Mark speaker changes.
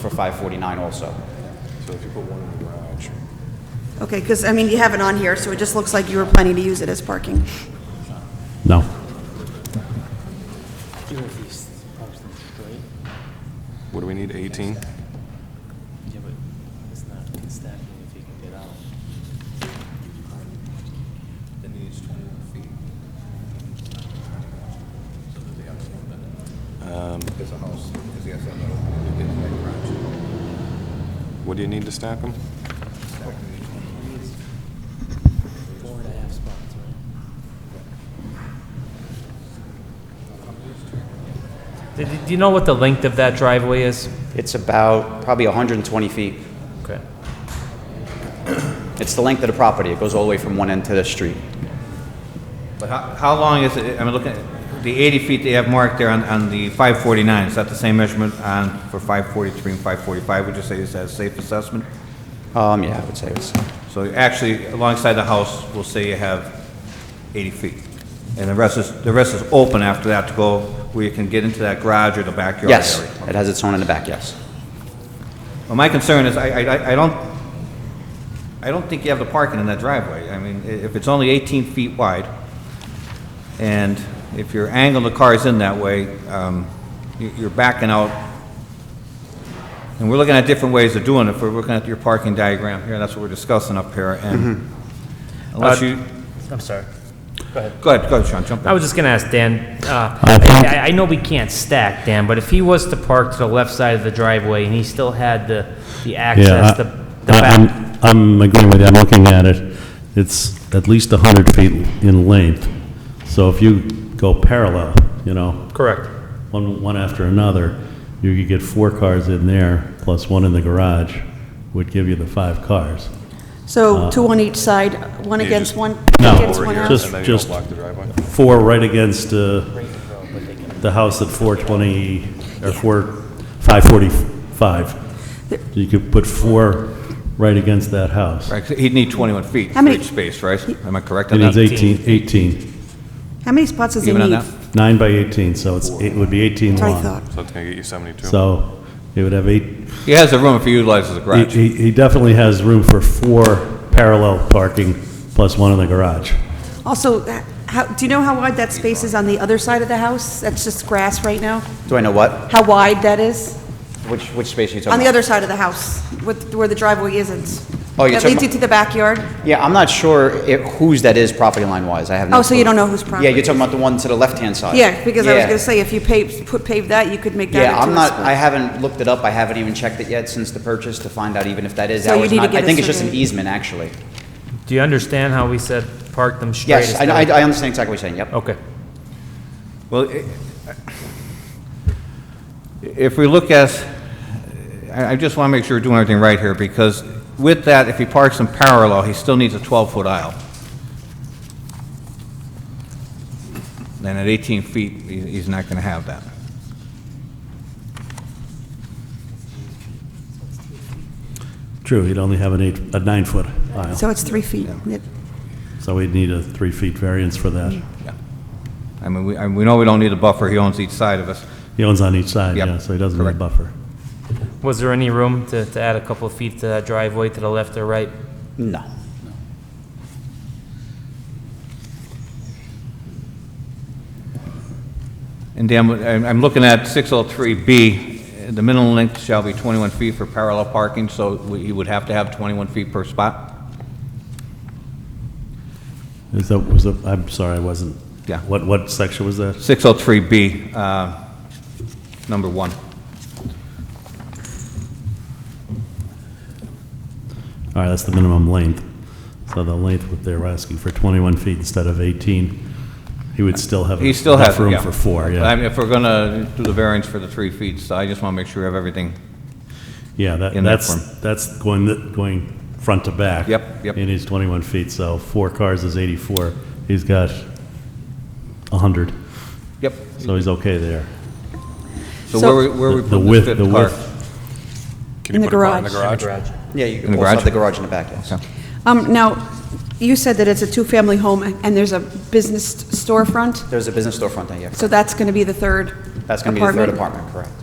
Speaker 1: for 549 also.
Speaker 2: So if you put one in the garage,
Speaker 3: Okay, because, I mean, you have it on here, so it just looks like you were planning to use it as parking.
Speaker 4: No.
Speaker 5: Even if he's parks them straight,
Speaker 2: what do we need, 18?
Speaker 5: yeah, but it's not stacking if he can get out.
Speaker 6: Then he needs twenty-one feet. So does he have to move it? It's a house, because he has that little, you get to that garage.
Speaker 2: What do you need to stack them?
Speaker 5: He needs four and a half spots, right?
Speaker 7: Do do you know what the length of that driveway is?
Speaker 1: It's about probably 120 feet.
Speaker 7: Okay.
Speaker 1: It's the length of the property. It goes all the way from one end to the street.
Speaker 6: But how, how long is it, I'm looking, at the eighty feet they have marked there on, on the five forty-nine, is that the same measurement on, for five forty-three and five forty-five? Would you say is that a safe assessment?
Speaker 1: Um, yeah, I would say it's,
Speaker 6: So actually, alongside the house, we'll say you have 80 feet. And the rest is, the rest is open after that to go where you can get into that garage or the backyard area.
Speaker 1: yes, it has its own in the back, yes.
Speaker 6: Well, my concern is, I, I, I don't, I don't think you have the parking in that driveway. I mean, i- if it's only 18 feet wide, and if you're angling the cars in that way, um, you- you're backing out. And we're looking at different ways of doing it. If We're looking at your parking diagram here, that's what we're discussing up here, and unless
Speaker 7: Uh,
Speaker 6: you,
Speaker 7: I'm sorry.
Speaker 6: go ahead, go ahead, Sean, jump in.
Speaker 7: I was just gonna ask Dan, uh,
Speaker 4: I think-
Speaker 7: I, I- I know we can't stack, Dan, but if he was to park to the left side of the driveway and he still had the, the
Speaker 4: Yeah,
Speaker 7: access, the, the
Speaker 4: I- I'm-
Speaker 7: back,
Speaker 4: I'm agreeing with you, I'm looking at it, it's at least 100 feet in length, so if you go parallel, you know,
Speaker 7: correct.
Speaker 4: one, one after another, you could get four cars in there, plus one in the garage, would give you the five cars.
Speaker 3: So two on each side, one
Speaker 2: You
Speaker 3: against
Speaker 2: just-
Speaker 3: one,
Speaker 4: No,
Speaker 3: against one house?
Speaker 2: And
Speaker 4: just-
Speaker 2: then you don't
Speaker 4: just-
Speaker 2: block the driveway?
Speaker 4: Four right against uh, the house at 420, or 4, 545. You could put four right against that house.
Speaker 6: Right, 'cause he'd need 21 feet
Speaker 3: How
Speaker 6: for
Speaker 3: many-
Speaker 6: each space, right? Am I correct
Speaker 4: It
Speaker 6: on
Speaker 4: needs
Speaker 6: that?
Speaker 4: 18, 18,
Speaker 3: How many spots does it
Speaker 6: Even on
Speaker 3: need?
Speaker 6: that?
Speaker 3: That's
Speaker 4: nine by 18, so it's, it would be 18
Speaker 3: what I
Speaker 4: long.
Speaker 3: thought.
Speaker 2: So that's going to get you 72.
Speaker 4: So it would have eight,
Speaker 6: He has the room if he utilizes the
Speaker 4: He-
Speaker 6: garage.
Speaker 4: He he definitely has room for four parallel parking plus one in the garage.
Speaker 3: Also, h- how, do you know how wide that space is on the other side of the house? That's just grass right now?
Speaker 1: Do I know what?
Speaker 3: How wide that is?
Speaker 1: Which, which space are you talking about?
Speaker 3: On the other side of the house, with- where the driveway isn't?
Speaker 1: Oh, you're
Speaker 3: That
Speaker 1: talking
Speaker 3: leads you
Speaker 1: about- Uh,
Speaker 3: to the backyard?
Speaker 1: Yeah, I'm not sure it- whose that is property line-wise. I have no
Speaker 3: Oh, so you
Speaker 1: clue.
Speaker 3: don't know whose property
Speaker 1: Yeah, you're
Speaker 3: it
Speaker 1: talking about the one to the left-hand side.
Speaker 3: Yeah, because I was
Speaker 1: Yeah.
Speaker 3: going to say, if you pave, put pave that, you could make that into a
Speaker 1: Yeah, I'm not,
Speaker 3: spot.
Speaker 1: I haven't looked it up. I haven't even checked it yet since the purchase to find out even if that is.
Speaker 3: So
Speaker 1: That
Speaker 3: you
Speaker 1: was
Speaker 3: need to
Speaker 1: not-
Speaker 3: get
Speaker 1: I
Speaker 3: a
Speaker 1: think it's just an
Speaker 3: survey.
Speaker 1: easement, actually.
Speaker 7: Do you understand how we said park them straight?
Speaker 1: Yes, I, I
Speaker 7: instead of-
Speaker 1: I understand exactly what you're saying, yep.
Speaker 7: Okay.
Speaker 6: Well, i- if we look at, I I just want to make sure we're doing everything right here, because with that, if he parks in parallel, he still needs a 12-foot aisle. And at 18 feet, he- he's not going to have that.
Speaker 4: True, he'd only have an eight, a nine-foot aisle,
Speaker 3: So it's three feet. Yep.
Speaker 4: so we'd need a three-feet variance for that.
Speaker 6: I mean, we- I- we know we don't need a buffer, he owns each side of us.
Speaker 4: He owns on each side,
Speaker 6: Yep,
Speaker 4: yeah, so he doesn't need a
Speaker 6: correct.
Speaker 4: buffer.
Speaker 7: Was there any room to, to add a couple of feet to that driveway to the left or right?
Speaker 1: No.
Speaker 6: And Dan, I'm I'm looking at 603B, the minimum length shall be 21 feet for parallel parking, so we- he would have to have 21 feet per spot?
Speaker 4: Is that, was that, I'm sorry, I wasn't.
Speaker 6: Yeah.
Speaker 4: What, what section was that?
Speaker 6: 603B, uh, number one.
Speaker 4: All right, that's the minimum length. So the length, what they were asking for 21 feet instead of 18, he would still have
Speaker 6: He still has,
Speaker 4: enough
Speaker 6: it, yeah.
Speaker 4: room for four,
Speaker 6: I
Speaker 4: yeah.
Speaker 6: mean, if we're going to do the variance for the three feet, so I just want to make sure we have everything.
Speaker 4: Yeah, that,
Speaker 6: in that
Speaker 4: that's,
Speaker 6: form.
Speaker 4: that's going, th- going front to back.
Speaker 6: Yep, yep.
Speaker 4: And he's 21 feet, so four cars is 84. He's got 100,
Speaker 6: Yep.
Speaker 4: so he's okay there.
Speaker 6: So where we, where we
Speaker 4: The
Speaker 6: put
Speaker 4: width,
Speaker 6: this fifth
Speaker 4: the
Speaker 6: car?
Speaker 4: width,
Speaker 2: Can you
Speaker 3: In the
Speaker 2: put a car in the
Speaker 3: garage.
Speaker 2: garage?
Speaker 1: Yeah, you
Speaker 6: the
Speaker 1: can also have
Speaker 6: garage?
Speaker 1: the garage in the back, yes.
Speaker 6: Okay.
Speaker 3: Um, now, you said that it's a two-family home and there's a business storefront,
Speaker 1: There's a business storefront there, yeah.
Speaker 3: so that's going to be the third apartment?
Speaker 1: That's going to be the third apartment, correct.